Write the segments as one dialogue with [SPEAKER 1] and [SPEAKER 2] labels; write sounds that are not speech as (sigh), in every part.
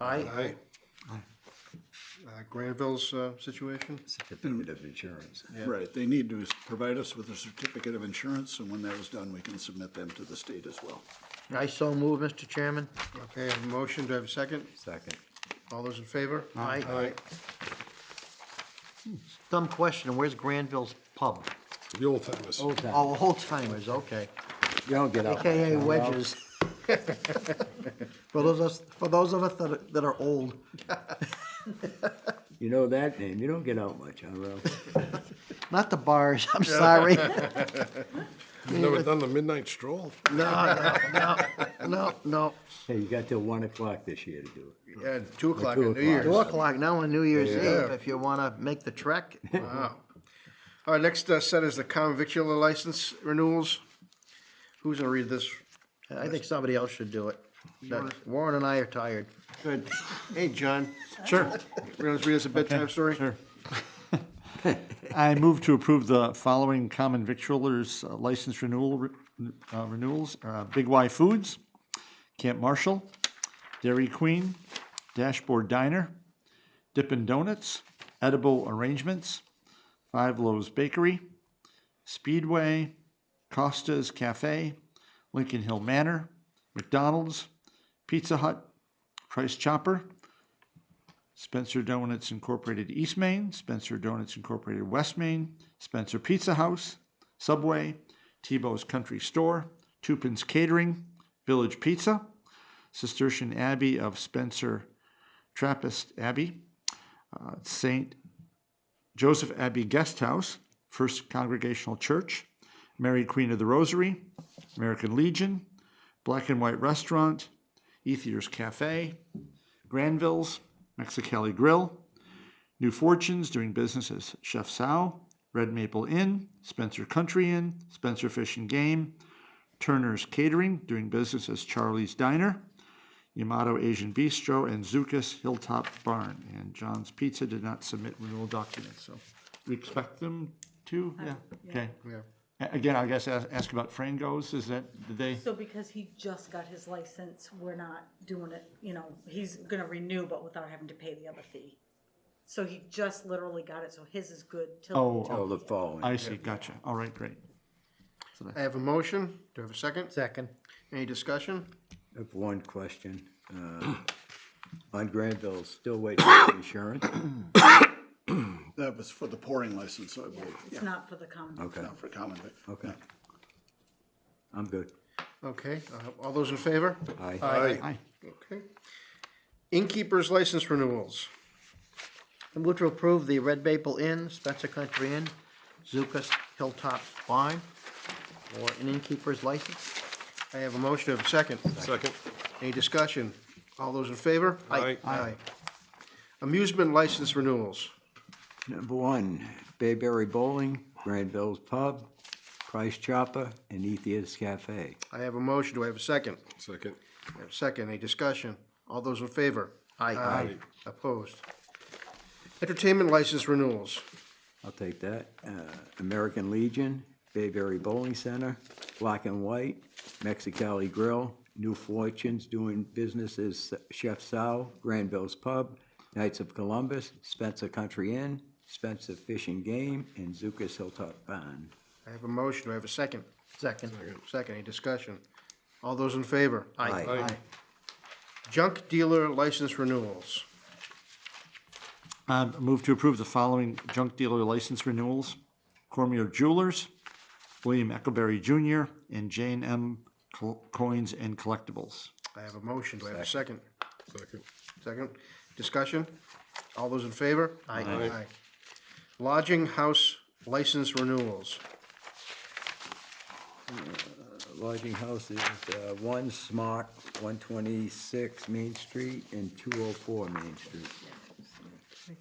[SPEAKER 1] Aye.
[SPEAKER 2] Aye. Uh, Granville's uh, situation?
[SPEAKER 3] Certificate of insurance.
[SPEAKER 4] Right, they need to s- provide us with a certificate of insurance, and when that is done, we can submit them to the state as well.
[SPEAKER 1] I so move, Mr. Chairman.
[SPEAKER 2] Okay, I have a motion, do I have a second?
[SPEAKER 3] Second.
[SPEAKER 2] All those in favor?
[SPEAKER 1] Aye.
[SPEAKER 2] Aye.
[SPEAKER 1] Dumb question, where's Granville's Pub?
[SPEAKER 5] The old timers.
[SPEAKER 3] Old town.
[SPEAKER 1] Oh, Old Timers, okay.
[SPEAKER 3] You don't get out.
[SPEAKER 1] AKA Wedges. For those, of us- for those of us that are- that are old.
[SPEAKER 3] You know that name. You don't get out much, huh, Ralph?
[SPEAKER 1] Not the
[SPEAKER 2] (laughs)
[SPEAKER 1] bars, I'm sorry.
[SPEAKER 5] You've never done the midnight stroll?
[SPEAKER 1] No, no, no, no, no.
[SPEAKER 3] (laughs) Hey, you got till one o'clock this year to do it.
[SPEAKER 2] Yeah, two o'clock
[SPEAKER 3] Two
[SPEAKER 2] on New
[SPEAKER 3] o'clock.
[SPEAKER 2] Year's.
[SPEAKER 1] Two o'clock now on New Year's
[SPEAKER 2] Yeah.
[SPEAKER 1] Eve, if you wanna make the trek.
[SPEAKER 2] Wow. All right, next uh, set is the common victular license renewals. Who's gonna read this?
[SPEAKER 1] I think somebody else should do it. That- Warren and I are tired.
[SPEAKER 2] Good. Hey, John,
[SPEAKER 6] Sure.
[SPEAKER 2] you want to read us a bedtime story?
[SPEAKER 6] Sure. I move to approve the following common victualers uh, license renewal, re- uh, renewals, uh, Big Y Foods, Camp Marshall, Dairy Queen, Dashboard Diner, Dippin' Donuts, Edible Arrangements, Five Loaves Bakery, Speedway, Costa's Cafe, Lincoln Hill Manor, McDonald's, Pizza Hut, Price Chopper, Spencer Donuts Incorporated East Main, Spencer Donuts Incorporated West Main, Spencer Pizza House, Subway, Tebow's Country Store, Tupin's Catering, Village Pizza, Cistercian Abbey of Spencer Trappist Abbey, uh, St. Joseph Abbey Guest House, First Congregational Church, Mary Queen of the Rosary, American Legion, Black and White Restaurant, Ethier's Cafe, Granville's, Mexicali Grill, New Fortunes, doing business as Chef Sal, Red Maple Inn, Spencer Country Inn, Spencer Fish and Game, Turner's Catering, doing business as Charlie's Diner, Yamato Asian Bistro, and Zuka's Hilltop Barn. And John's Pizza did not submit renewal documents, so we expect them to, yeah, okay. A- Again, I guess ask ask about Frango's, is that, did they?
[SPEAKER 7] So because he just got his license, we're not doing it, you know, he's gonna renew, but without having to pay the other fee. So he just literally got it, so his is good till.
[SPEAKER 6] Oh,
[SPEAKER 3] Till
[SPEAKER 6] oh,
[SPEAKER 3] the following.
[SPEAKER 6] I see, gotcha, all right, great.
[SPEAKER 2] I have a motion, do I have a second?
[SPEAKER 1] Second.
[SPEAKER 2] Any discussion?
[SPEAKER 3] I have one question. uh, On Granville, still waiting for (clears throat) insurance?
[SPEAKER 4] That was for the pouring license, I believe,
[SPEAKER 7] It's not for the common.
[SPEAKER 3] Okay,
[SPEAKER 4] not for common vic.
[SPEAKER 3] okay. I'm good.
[SPEAKER 2] Okay, uh, all those in favor?
[SPEAKER 3] Aye.
[SPEAKER 6] Aye.
[SPEAKER 2] Okay. Innkeeper's license renewals.
[SPEAKER 1] I move to approve the Red Maple Inn, Spencer Country Inn, Zuka's Hilltop Barn for an innkeeper's license.
[SPEAKER 2] I have a motion, do I have a second?
[SPEAKER 5] Second.
[SPEAKER 2] Any discussion? All those in favor?
[SPEAKER 5] Aye.
[SPEAKER 2] Aye. Amusement license renewals.
[SPEAKER 3] Number one, Bayberry Bowling, Granville's Pub, Price Chopper, and Ethia's Cafe.
[SPEAKER 2] I have a motion, do I have a second?
[SPEAKER 5] Second.
[SPEAKER 2] I have a second, any discussion? All those in favor?
[SPEAKER 1] Aye.
[SPEAKER 2] Opposed? Entertainment license renewals.
[SPEAKER 3] I'll take that. Uh, American Legion, Bayberry Bowling Center, Black and White, Mexicali Grill, New Fortunes Doing Business as Chef Sal, Granville's Pub, Knights of Columbus, Spencer Country Inn, Spencer Fish and Game, and Zuka's Hilltop Barn.
[SPEAKER 2] I have a motion, do I have a second?
[SPEAKER 1] Second.
[SPEAKER 2] Second, any discussion? All those in favor?
[SPEAKER 1] Aye.
[SPEAKER 5] Aye.
[SPEAKER 2] Junk dealer license renewals.
[SPEAKER 6] Um, move to approve the following junk dealer license renewals. Cormier Jewelers, William Eckelberry Jr., and Jane M. Col- Coins and Collectibles.
[SPEAKER 2] I have a motion, do I have a second?
[SPEAKER 5] Second.
[SPEAKER 2] Second, discussion? All those in favor?
[SPEAKER 1] Aye.
[SPEAKER 5] Aye.
[SPEAKER 2] Lodging house license renewals.
[SPEAKER 3] Lodging houses, uh, one Smart, 126 Main Street, and 204 Main Street.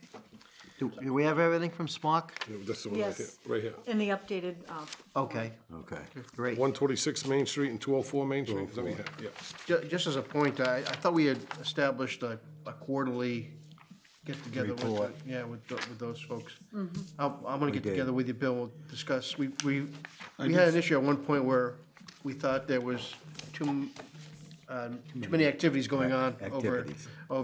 [SPEAKER 1] Do do we have everything from Smock?
[SPEAKER 5] Yeah, That's the one right here,
[SPEAKER 7] Yes.
[SPEAKER 5] right here.
[SPEAKER 7] In the updated, uh,
[SPEAKER 1] Okay,
[SPEAKER 3] Okay.
[SPEAKER 1] great.
[SPEAKER 5] One twenty-six Main Street and two oh four Main Street, is that what you have? Yeah.
[SPEAKER 2] Ju- just as a point, I, I thought we had established a, a quarterly get-together with, the-
[SPEAKER 3] Report. Mm-hmm.
[SPEAKER 2] yeah, with, tho- with those folks. I'm, I'm gonna get
[SPEAKER 3] did.
[SPEAKER 2] together with you, Bill, we'll discuss, we, we, we had an issue at one point where we thought there was too, m- um, too uh, many activities going on over,
[SPEAKER 3] Mm-hmm. Activities.
[SPEAKER 2] over